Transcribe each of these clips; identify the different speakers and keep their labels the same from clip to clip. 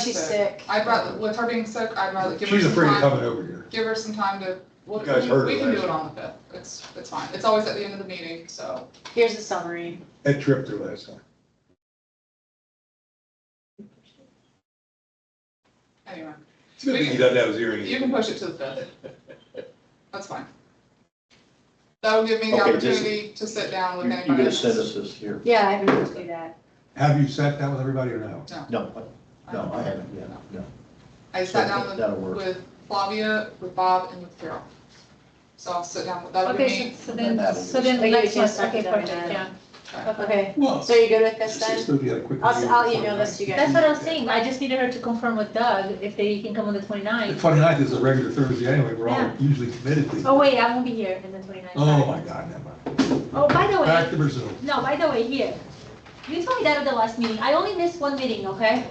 Speaker 1: She's
Speaker 2: So,
Speaker 1: sick.
Speaker 2: I'd rather, with her being sick, I'd rather give her
Speaker 3: She's
Speaker 2: some
Speaker 3: afraid of
Speaker 2: time,
Speaker 3: coming over here.
Speaker 2: give her some time to, we'll-
Speaker 3: You guys heard
Speaker 2: we
Speaker 3: her
Speaker 2: can do
Speaker 3: last
Speaker 2: it on the fifth, it's, it's fine, it's always at the end of the meeting, so.
Speaker 1: Here's a summary.
Speaker 3: That trip there last time.
Speaker 2: Anyway,
Speaker 3: It's a good thing he doesn't have his hearing.
Speaker 2: you can push it to the fifth. That's fine. That'll give me the
Speaker 4: Okay, just-
Speaker 2: opportunity to sit down with
Speaker 4: You're
Speaker 2: anybody.
Speaker 4: gonna
Speaker 2: that's-
Speaker 4: send us this here?
Speaker 1: Yeah, I haven't to do that.
Speaker 3: Have you sat down with everybody or no?
Speaker 4: No, I- no, I haven't yet, no.
Speaker 2: I sat down
Speaker 4: That'll
Speaker 2: with,
Speaker 4: work.
Speaker 2: with Flavia, with Bob, and with Carol. So I'll sit down with, that'll be
Speaker 5: Okay,
Speaker 2: me.
Speaker 5: so- so
Speaker 4: And
Speaker 5: then,
Speaker 4: that'll
Speaker 5: so
Speaker 4: be-
Speaker 5: then
Speaker 1: Oh,
Speaker 5: the
Speaker 1: you
Speaker 5: next
Speaker 1: can't
Speaker 5: one,
Speaker 1: suck
Speaker 5: okay,
Speaker 1: it down
Speaker 5: perfect,
Speaker 1: now.
Speaker 5: yeah.
Speaker 1: Okay,
Speaker 3: Well,
Speaker 1: so you good with this
Speaker 3: it's just
Speaker 1: then?
Speaker 3: gonna be like a quick
Speaker 1: I'll,
Speaker 3: meeting.
Speaker 1: I'll email this to you
Speaker 5: That's
Speaker 1: guys.
Speaker 5: what I'm saying, I just needed her to confirm with Doug if they can come on the
Speaker 3: The
Speaker 5: 29th.
Speaker 3: twenty-ninth is a regular Thursday anyway, we're all
Speaker 5: Yeah.
Speaker 3: usually committed to.
Speaker 5: Oh, wait, I won't be here in the 29th.
Speaker 3: Oh, my God, never mind.
Speaker 5: Oh, by the
Speaker 3: Back
Speaker 5: way,
Speaker 3: to Brazil.
Speaker 5: no, by the way, here, you told me that at the last meeting, I only missed one meeting, okay?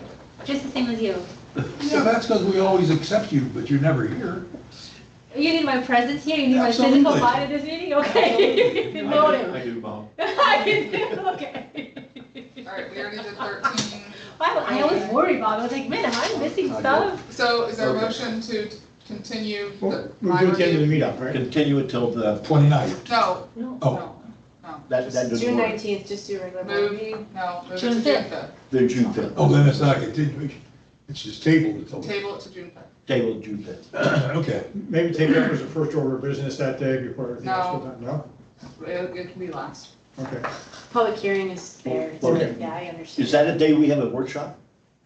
Speaker 5: Just the same as you.
Speaker 3: Yeah, that's because we always accept you, but you're never here.
Speaker 5: You need my presence here, you need my physical
Speaker 3: Absolutely.
Speaker 5: body at this meeting, okay? Noted.
Speaker 4: I do, Bob.
Speaker 5: I can do, okay.
Speaker 2: Alright, we already did thirteen,
Speaker 5: Why, would- I always worry about, it. I was like, man, am I missing
Speaker 4: I
Speaker 5: stuff?
Speaker 2: so is there a
Speaker 4: Okay.
Speaker 2: motion to continue the,
Speaker 6: Well, We'll
Speaker 2: my
Speaker 6: do it at the end of
Speaker 2: review?
Speaker 6: the meetup, right?
Speaker 4: Continue until the,
Speaker 3: Twenty-ninth.
Speaker 2: No,
Speaker 5: No.
Speaker 3: Oh.
Speaker 2: no, no.
Speaker 4: that, that
Speaker 1: June
Speaker 4: doesn't work.
Speaker 1: nineteenth, just do regular board
Speaker 2: Move.
Speaker 1: meeting.
Speaker 2: No, move it to
Speaker 5: June
Speaker 2: June
Speaker 5: fifth.
Speaker 2: fifth.
Speaker 4: The June fifth,
Speaker 3: Oh, then it's not a continuation. It's just tabled until,
Speaker 2: Table it to June fifth.
Speaker 4: table June fifth.
Speaker 3: okay.
Speaker 6: Maybe take that as the first order of business that day before everything else goes on, no?
Speaker 2: It, it can be last.
Speaker 6: Okay.
Speaker 1: Public hearing is there. It's-
Speaker 4: Okay.
Speaker 1: Yeah, I understand.
Speaker 4: Is that a day we have a workshop?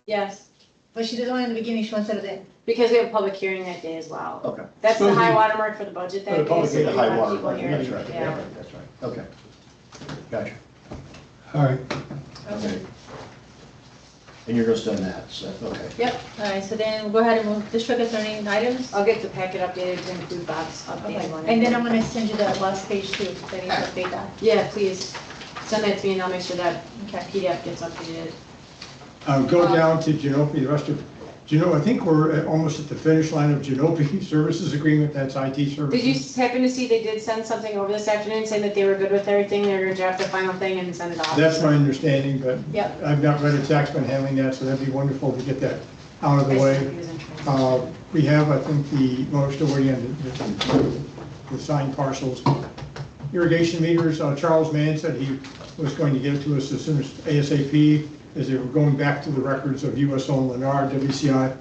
Speaker 1: Yes,
Speaker 5: But she doesn't want it in the beginning, she wants it at the end.
Speaker 1: because we have a public hearing that day as well.
Speaker 4: Okay.
Speaker 1: That's the
Speaker 3: Supposed to
Speaker 1: high
Speaker 3: be-
Speaker 1: water mark for the budget
Speaker 6: For
Speaker 1: that
Speaker 6: the
Speaker 1: day,
Speaker 6: public
Speaker 1: so we
Speaker 4: Oh, The
Speaker 6: hearing,
Speaker 4: high
Speaker 1: want
Speaker 4: water,
Speaker 1: people
Speaker 4: mark,
Speaker 1: here.
Speaker 4: that's right,
Speaker 1: Yeah.
Speaker 4: yeah, that's right, okay. Gotcha,
Speaker 3: All right.
Speaker 4: okay. And you're gonna send that, so, okay.
Speaker 5: All right, so then go ahead and move district attorney items.
Speaker 1: I'll get the packet updated to include Bob's
Speaker 5: Okay,
Speaker 1: updated one.
Speaker 5: and then I'm gonna send you the last page too, that is
Speaker 2: Okay.
Speaker 5: update that.
Speaker 1: Yeah, please, send that to me and I'll make sure that
Speaker 5: Okay.
Speaker 1: PDF gets updated.
Speaker 6: Um, Go down to Genope, the rest of, Geno, I think we're at- almost at the finish line of Genope Services Agreement, that's IT
Speaker 1: Did you
Speaker 6: services.
Speaker 1: happen to see they did send something over this afternoon saying that they were good with everything, they were gonna draft the final thing and send it off?
Speaker 6: That's my understanding, but
Speaker 1: Yep.
Speaker 6: I've not read it, Zach's been handling that, so that'd be wonderful to get that out of the way.
Speaker 1: He was in transit.
Speaker 6: Uh, We have, I think, the, well, we're still waiting on the- the signed parcels. Irrigation meters, uh, Charles Mann said he was going to get it to us as soon as ASAP, as they were going back to the records of USO and Lennar, WCI,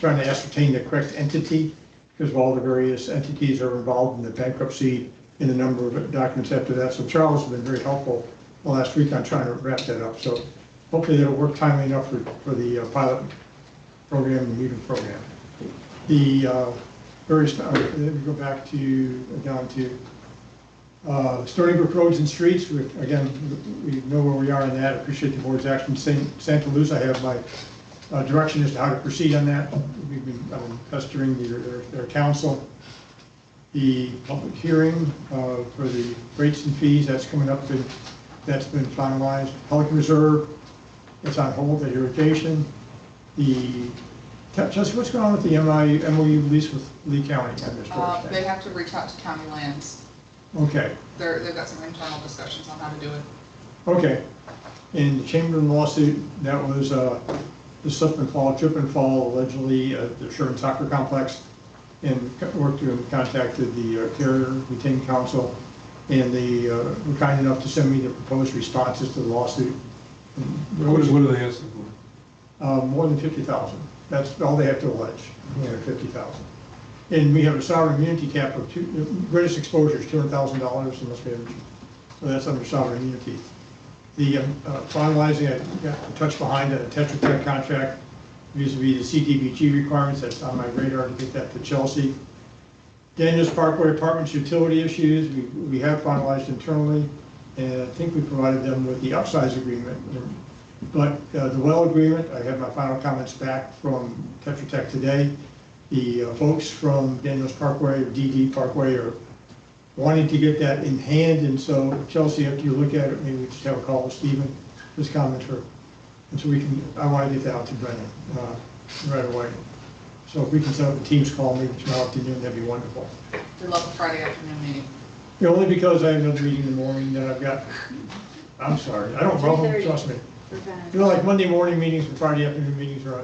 Speaker 6: trying to ascertain the correct entity, because of all the various entities that are involved in the bankruptcy and the number of documents after that. So Charles has been very helpful the last week on trying to wrap that up. So hopefully that'll work timely enough for, for the uh, pilot program and meeting program. The uh, various, uh, let me go back to, down to uh, Stony Brook Roads and Streets, We- again, we know where we are in that, appreciate the board's action. San- Santa Luz, I have my uh, direction as to how to proceed on that. We've been um, pestering their- their their council. The public hearing uh, for the rates and fees, that's coming up, and that's been finalized. Pelican Reserve, it's on hold, the irrigation. The Tell tell us what's going on with the MI MOU lease with Lee County? I missed what
Speaker 2: Uh,
Speaker 6: it
Speaker 2: they
Speaker 6: said.
Speaker 2: have to reach out to county lands.
Speaker 6: Okay,
Speaker 2: They're, they've got some internal discussions on how to do it.
Speaker 6: okay. In the Chamberlain lawsuit, that was uh, the slip and fall, trip and fall allegedly at the Sherman Soccer Complex. And co- worked through and contacted the uh, carrier, retained counsel, and they uh, were kind enough to send me the proposed responses to the lawsuit.
Speaker 3: What is, what are they asking for?
Speaker 6: Uh, more than fifty thousand. That's all they have to allege, more than fifty thousand. And we have a sovereign immunity cap of two, the greatest exposure is two hundred thousand dollars unless we have, well, that's under sovereign immunity. The um, uh, finalizing, I got a touch behind a Tetra Tech contract vis a vis the CDBG requirements, that's on my radar to get that to Chelsea. Daniels Parkway Apartments utility issues, we, we have finalized internally, and I think we provided them with the upsize agreement. But uh, the well agreement, I have my final comments back from Tetra Tech today. The uh, folks from Daniels Parkway, or DD Parkway, are wanting to get that in hand, and so Chelsea, after you look at it, maybe we just have a call with Stephen, his comments are, and so we can, I want to get that out to Brendan uh, right away. So if we can set up a Teams call maybe tomorrow afternoon, that'd be wonderful.
Speaker 2: We love the Friday afternoon meeting.
Speaker 6: Yeah, Only because I have another meeting in the morning that I've got, I'm sorry, I don't,
Speaker 1: 3:30.
Speaker 6: problem, trust me.
Speaker 1: We're done.
Speaker 6: You know, like Monday morning meetings and Friday afternoon meetings are,